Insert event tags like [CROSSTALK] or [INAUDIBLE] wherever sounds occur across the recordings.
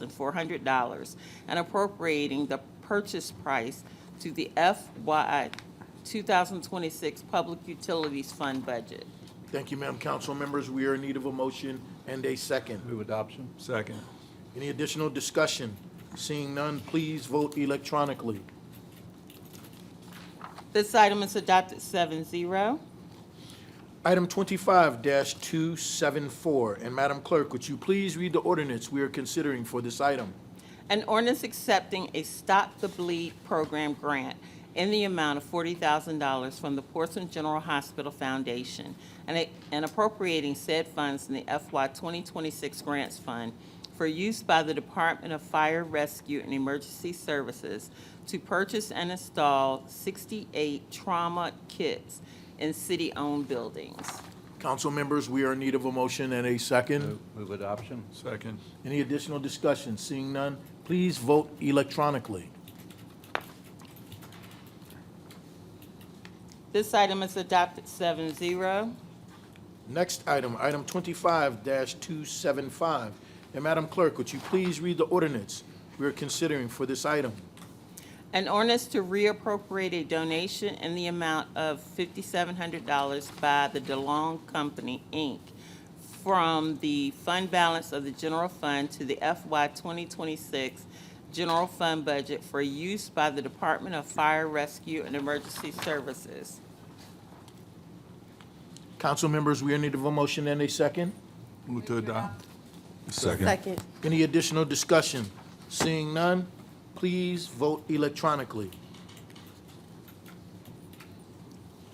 $93,400 and appropriating the purchase price to the FY 2026 Public Utilities Fund budget. Thank you, Madam Council members. We are in need of a motion and a second. Move adoption. Second. Any additional discussion? Seeing none, please vote electronically. This item is adopted 7-0. Item twenty-five two seven four, and Madam Clerk, would you please read the ordinance we are considering for this item? An ordinance accepting a Stop the Bleed program grant in the amount of $40,000 from the Portsmouth General Hospital Foundation and a- and appropriating said funds in the FY 2026 Grants Fund for use by the Department of Fire Rescue and Emergency Services to purchase and install 68 trauma kits in city-owned buildings. Council members, we are in need of a motion and a second. Move move adoption. Second. Any additional discussion? Seeing none, please vote electronically. This item is adopted 7-0. Next item, item twenty-five two seven five, and Madam Clerk, would you please read the ordinance we are considering for this item? An ordinance to reappropriate a donation in the amount of fifty-seven hundred dollars by the DeLong Company, Inc. from the fund balance of the general fund to the FY twenty twenty-six general fund budget for use by the Department of Fire Rescue and Emergency Services. Council members, we are in need of a motion and a second. Move to adopt. Second. Any additional discussion? Seeing none, please vote electronically.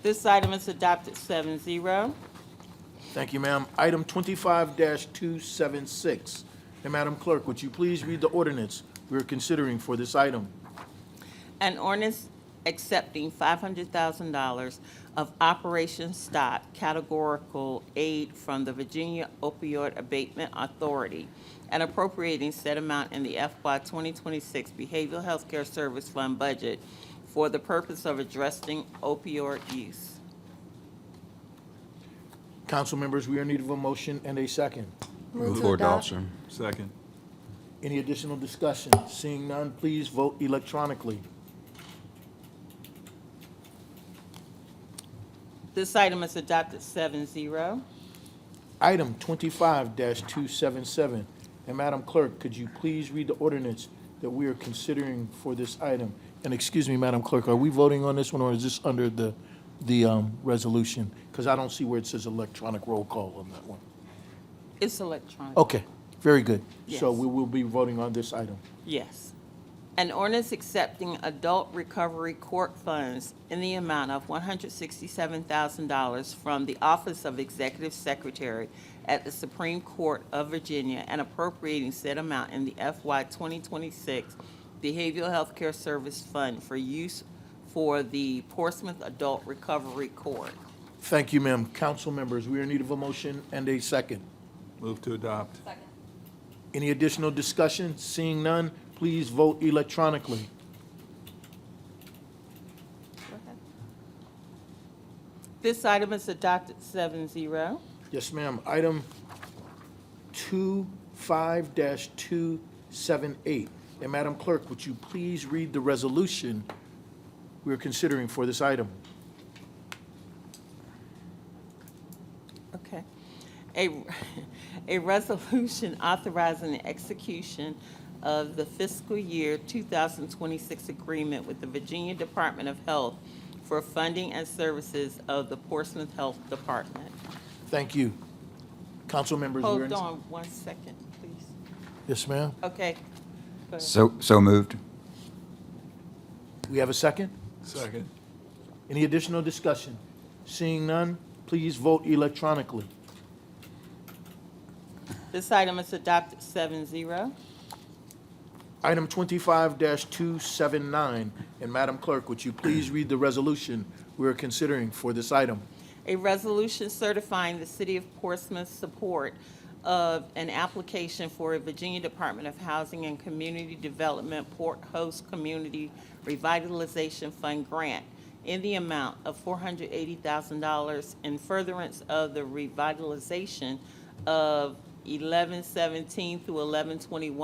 This item is adopted 7-0. Thank you, ma'am. Item twenty-five two seven six. And Madam Clerk, would you please read the ordinance we are considering for this item? An ordinance accepting five hundred thousand dollars of Operation Stop categorical aid from the Virginia Opioid Abatement Authority and appropriating said amount in the FY twenty twenty-six Behavioral Health Care Service Fund budget for the purpose of addressing opioid use. Council members, we are in need of a motion and a second. Move for adoption. Second. Any additional discussion? Seeing none, please vote electronically. This item is adopted 7-0. Item twenty-five two seven seven. And Madam Clerk, could you please read the ordinance that we are considering for this item? And excuse me, Madam Clerk, are we voting on this one, or is this under the, the, um, resolution? Because I don't see where it says electronic roll call on that one. It's electronic. Okay, very good. So Yes. we will be voting on this item. Yes. An ordinance accepting adult recovery court funds in the amount of $167,000 from the Office of Executive Secretary at the Supreme Court of Virginia and appropriating said amount in the FY 2026 Behavioral Health Care Service Fund for use for the Portsmouth Adult Recovery Court. Thank you, ma'am. Council members, we are in need of a motion and a second. Move to adopt. Any additional discussion? Seeing none, please vote electronically. This item is adopted 7-0. Yes, ma'am. Item two five dash two seven eight. And Madam Clerk, would you please read the resolution we are considering for this item? Okay. A, [LAUGHS] a resolution authorizing the execution of the fiscal year 2026 agreement with the Virginia Department of Health for funding and services of the Portsmouth Health Department. Thank you. Council members, we are in. Hold on one second, please. Yes, ma'am. Okay. Go ahead. So, so moved. We have a second? Second. Any additional discussion? Seeing none, please vote electronically. This item is adopted 7-0. Item twenty-five two seven nine. And Madam Clerk, would you please read the resolution we are considering for this item? a resolution certifying the City of Portsmouth's support of an application for a Virginia Department of Housing and Community Development Port Host Community Revitalization Fund grant in the amount of $480,000 in furtherance of the revitalization of eleven seventeen through eleven twenty-one